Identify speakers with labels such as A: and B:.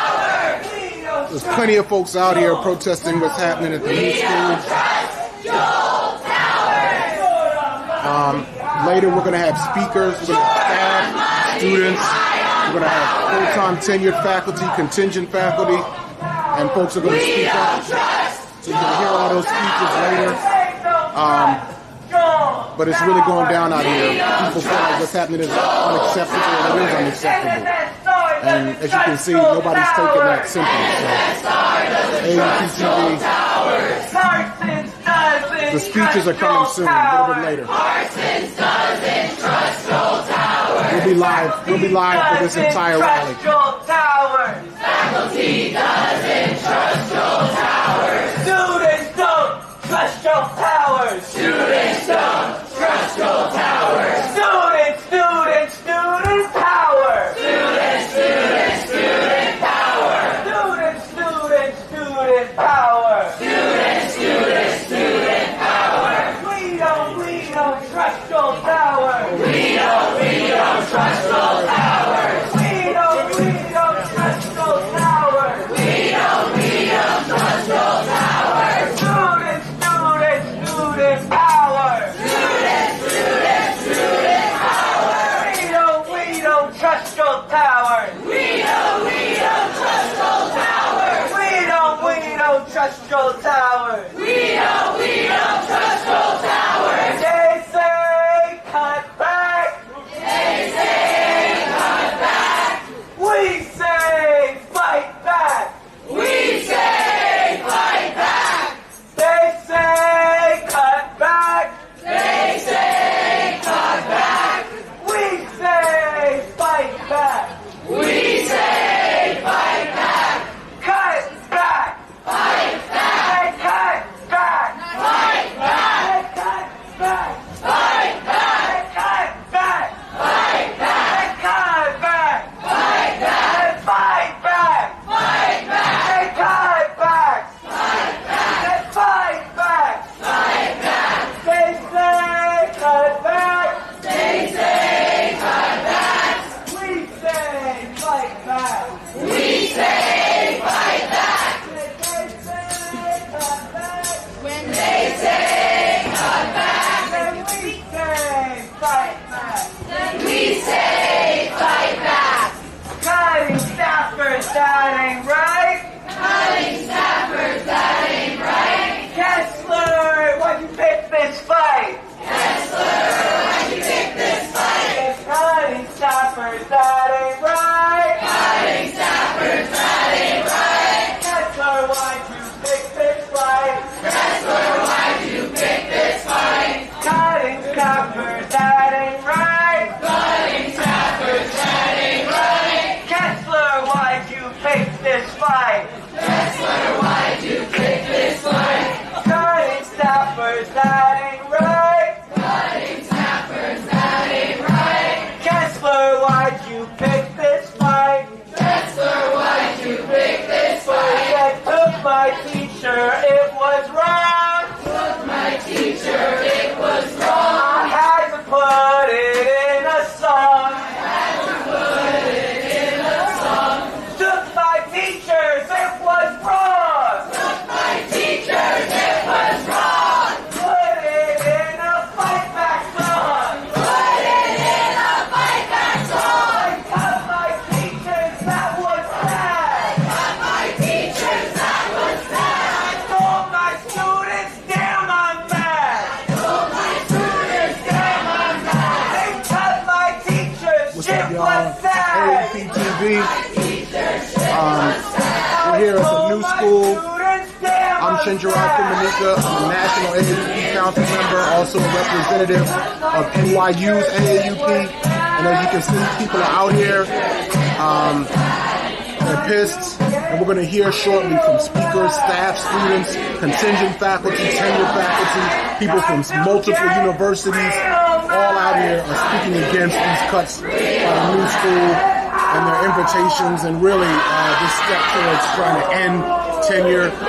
A: see, there's plenty of folks out here protesting what's happening at the new school. Um, later, we're going to have speakers, we're going to have staff, students, we're going to have full-time tenured faculty, contingent faculty, and folks are going to speak up. So you're going to hear all those speeches later. Um, but it's really going down out here. People feel like what's happening is unacceptable and it is unacceptable. And as you can see, nobody's taking that simply. So, AUTTV, the speeches are coming soon, a little bit later. We'll be live. We'll be live for this entire rally.
B: Faculty doesn't trust your towers. Students don't trust your towers. Students don't trust your towers. Students, students, student power. Students, students, student power. Students, students, student power. Students, students, student power. We don't, we don't trust your towers. We don't, we don't trust your towers. We don't, we don't trust your towers. We don't, we don't trust your towers. Students, students, student power. Students, students, student power. We don't, we don't trust your towers. We don't, we don't trust your towers. We don't, we don't trust your towers. We don't, we don't trust your towers. They say cut back. They say cut back. We say fight back. We say fight back. They say cut back. They say cut back. We say fight back. We say fight back. Cut back. Fight back. They cut back. Fight back. They cut back. Fight back. They cut back. Fight back. They cut back. Fight back. They fight back. Fight back. They cut back. Fight back. They fight back. Fight back. They say cut back. They say cut back. We say fight back. We say fight back. When they say cut back. When we say fight back. Then we say fight back. Cutting staffers that ain't right. Cutting staffers that ain't right. Kessler, why'd you pick this fight? It's cutting staffers that ain't right. Cutting staffers that ain't right. Kessler, why'd you pick this fight? Kessler, why'd you pick this fight? Cutting staffers that ain't right. Cutting staffers that ain't right. Kessler, why'd you pick this fight? Kessler, why'd you pick this fight? Cutting staffers that ain't right. Cutting staffers that ain't right. Kessler, why'd you pick this fight? Kessler, why'd you pick this fight? I took my teacher, it was wrong. Took my teacher, it was wrong. I had to put it in a song. Took my teachers, it was wrong. Took my teachers, it was wrong. Put it in a fight back song. Put it in a fight back song. I cut my teachers, that was sad. cut my teachers, that was sad. I told my students, damn I'm mad. I told my students, damn I'm mad. They cut my teachers,
A: What's
B: shit
A: up, y'all?
B: was sad.
A: AUTTV. Um, we're here at the new school. I'm Shinjiro Kumanika. I'm a national AAUP council member, also a representative of NYU's AAUP. And as you can see, people are out here. Um, they're pissed. And we're going to hear shortly from speakers, staff, students, contingent faculty, tenured faculty, people from multiple universities, all out here are speaking against these cuts by the new school and their invitations and really uh, this step towards trying to end tenure